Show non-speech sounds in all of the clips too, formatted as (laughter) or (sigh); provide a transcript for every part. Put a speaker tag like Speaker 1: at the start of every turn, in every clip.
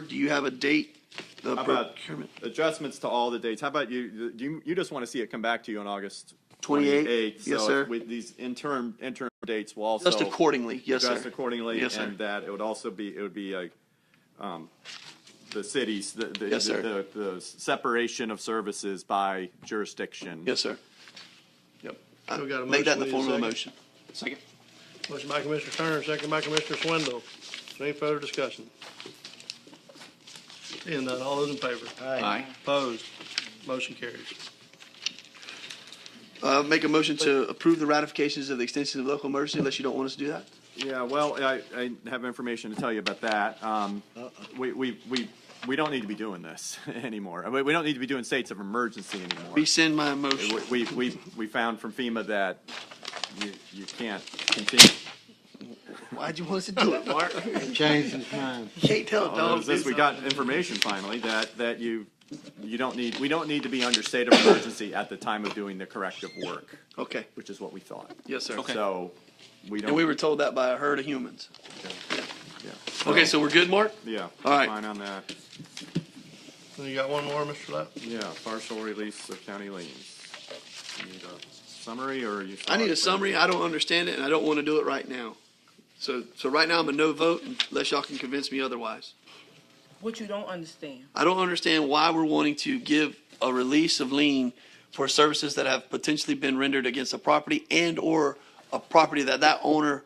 Speaker 1: Do you have a date? The
Speaker 2: How about
Speaker 1: procurement?
Speaker 2: adjustments to all the dates? How about you, do you, you just want to see it come back to you on August
Speaker 1: 28th?
Speaker 2: 28th?
Speaker 1: Yes,
Speaker 2: So
Speaker 1: sir.
Speaker 2: With these interim, interim dates will also.
Speaker 1: Just accordingly, yes, sir.
Speaker 2: Adjust accordingly,
Speaker 1: Yes, sir.
Speaker 2: and that it would also be, it would be like, um, the cities, the, the.
Speaker 1: Yes, sir.
Speaker 2: The, the separation of services by jurisdiction.
Speaker 1: Yes, sir. Yep.
Speaker 3: We got a
Speaker 1: Make that in the
Speaker 3: motion,
Speaker 1: form of a
Speaker 3: we need a
Speaker 1: motion. Second.
Speaker 3: Motion by Commissioner Turner, second by Commissioner Swindle. Is there any further discussion? Seeing none, all those in favor?
Speaker 1: Aye.
Speaker 3: Opposed? Motion carries.
Speaker 1: Uh, make a motion to approve the ratifications of the extensions of local emergency unless you don't want us to do that?
Speaker 2: Yeah, well, I, I have information to tell you about that. Um, we, we, we, we don't need to be doing this (laughs) anymore. We, we don't need to be doing states of emergency anymore.
Speaker 1: Rescind my motion.
Speaker 2: We- We, we, we found from FEMA that you, you can't continue.
Speaker 1: Why'd you want us to do it, Mark?
Speaker 4: Changed his mind.
Speaker 1: You can't tell a
Speaker 2: Although
Speaker 1: dog.
Speaker 2: Since we got information finally that, that you, you don't need, we don't need to be under state of emergency at the time of doing the corrective work,
Speaker 1: Okay,
Speaker 2: which is what we thought.
Speaker 1: yes, sir.
Speaker 2: So, we don't.
Speaker 1: And we were told that by a herd of humans.
Speaker 2: yeah.
Speaker 1: Okay, so we're good, Mark?
Speaker 2: Yeah.
Speaker 1: All right.
Speaker 2: Fine on that.
Speaker 3: And you got one more, Mr. Lapp?
Speaker 2: Yeah, partial release of county liens. You Need a summary or you?
Speaker 1: I need a summary. I don't understand it and I don't want to do it right now. So, so right now I'm a no vote unless y'all can convince me otherwise.
Speaker 5: What you don't understand.
Speaker 1: I don't understand why we're wanting to give a release of lien for services that have potentially been rendered against a property and or a property that that owner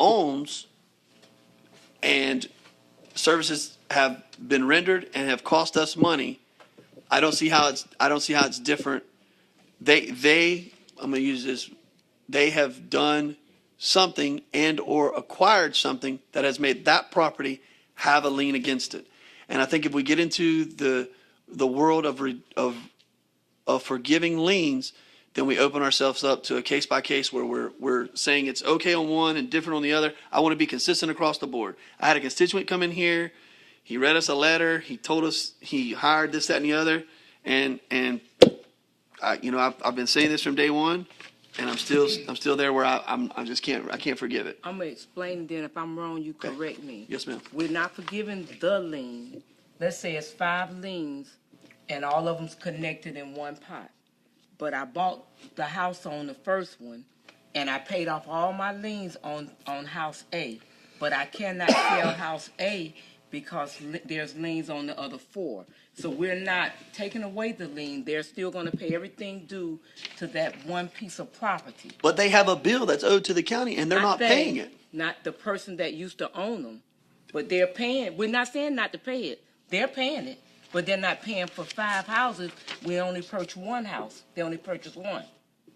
Speaker 1: owns and services have been rendered and have cost us money. I don't see how it's, I don't see how it's different. They, they, I'm gonna use this, they have done something and or acquired something that has made that property have a lien against it. And I think if we get into the, the world of, re- of, of forgiving liens, then we open ourselves up to a case by case where we're, we're saying it's okay on one and different on the other. I want to be consistent across the board. I had a constituent come in here. He read us a letter. He told us he hired this, that, and the other. And, and I, you know, I've, I've been saying this from day one and I'm still, I'm still there where I, I'm, I just can't, I can't forgive it.
Speaker 5: I'm gonna explain then. If I'm wrong, you correct me.
Speaker 1: Yes, ma'am.
Speaker 5: We're not forgiving the lien. Let's say it's five liens and all of them's connected in one pot. But I bought the house on the first one and I paid off all my liens on, on house A. But I cannot (coughs) sell house A because li- there's liens on the other four. So we're not taking away the lien. They're still gonna pay everything due to that one piece of property.
Speaker 1: But they have a bill that's owed to the county and they're not
Speaker 5: Not they,
Speaker 1: paying it.
Speaker 5: Not the person that used to own them, but they're paying. We're not saying not to pay it. They're paying it, but they're not paying for five houses. We only purchased one house. They only purchased one.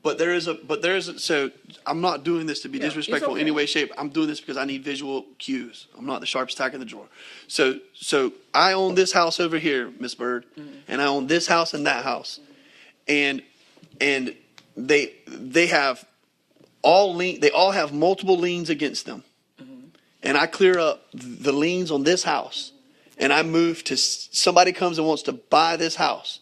Speaker 1: But there is a, but there is, a- so I'm not doing this to be
Speaker 5: Yeah, it's
Speaker 1: disrespectful in any
Speaker 5: okay.
Speaker 1: way, shape. I'm doing this because I need visual cues. I'm not the sharpest tack in the drawer. So, so I own this house over here, Miss Bird,
Speaker 5: Mm-hmm.
Speaker 1: and I own this house and that house. And, and they, they have all lien, they all have multiple liens against them. And I clear up the liens on this house and I move to, s- somebody comes and wants to buy this house.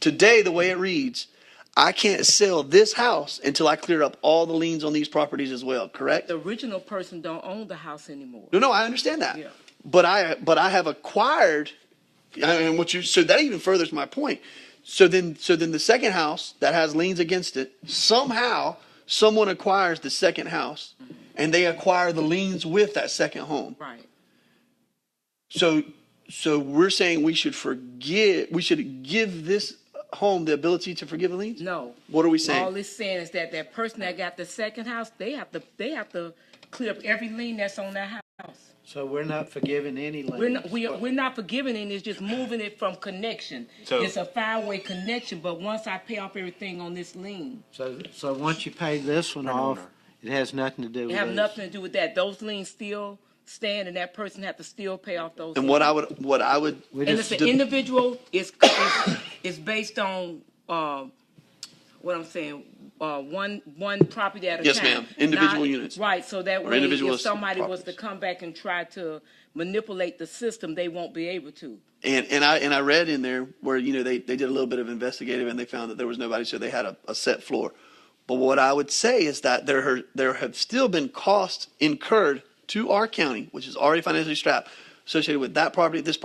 Speaker 1: Today, the way it reads, I can't sell this house until I clear up all the liens on these properties as well, correct?
Speaker 5: The original person don't own the house anymore.
Speaker 1: No, no, I understand that.
Speaker 5: Yeah.
Speaker 1: But I, but I have acquired, and what you, so that even furthers my point. So then, so then the second house that has liens against it, somehow someone acquires the second house and they acquire the liens with that second home.
Speaker 5: Right.
Speaker 1: So, so we're saying we should forgive, we should give this home the ability to forgive the liens?
Speaker 5: No.
Speaker 1: What are we saying?
Speaker 5: All it's saying is that that person that got the second house, they have to they have to clear up every lien that's on that house.
Speaker 4: So we're not forgiving any
Speaker 5: We're
Speaker 4: liens?
Speaker 5: not, we are, we're not forgiving it, it's just moving it from connection.
Speaker 2: So-
Speaker 5: It's a five-way connection, but once I pay off everything on this lien,
Speaker 4: So, so once you pay this one off, it has nothing to do
Speaker 5: it
Speaker 4: with
Speaker 5: have
Speaker 4: these?
Speaker 5: nothing to do with that. Those liens still stand and that person have to still pay off those.
Speaker 1: And what I
Speaker 5: liens.
Speaker 1: would, what I would.
Speaker 4: We
Speaker 5: And
Speaker 4: just
Speaker 5: it's an individual, it's, it's, it's based on, um, what I'm saying, uh, one, one property at a time.
Speaker 1: Yes, ma'am. Individual
Speaker 5: Not-
Speaker 1: units.
Speaker 5: Right, so that
Speaker 1: Or
Speaker 5: way,
Speaker 1: individual
Speaker 5: if somebody was to
Speaker 1: properties.
Speaker 5: come back and try to manipulate the system, they won't be able to.
Speaker 1: And, and I, and I read in there where, you know, they, they did a little bit of investigative and they found that there was nobody, so they had a, a set floor. But what I would say is that there, are- there have still been costs incurred to our county, which is already financially strapped, associated with that property, this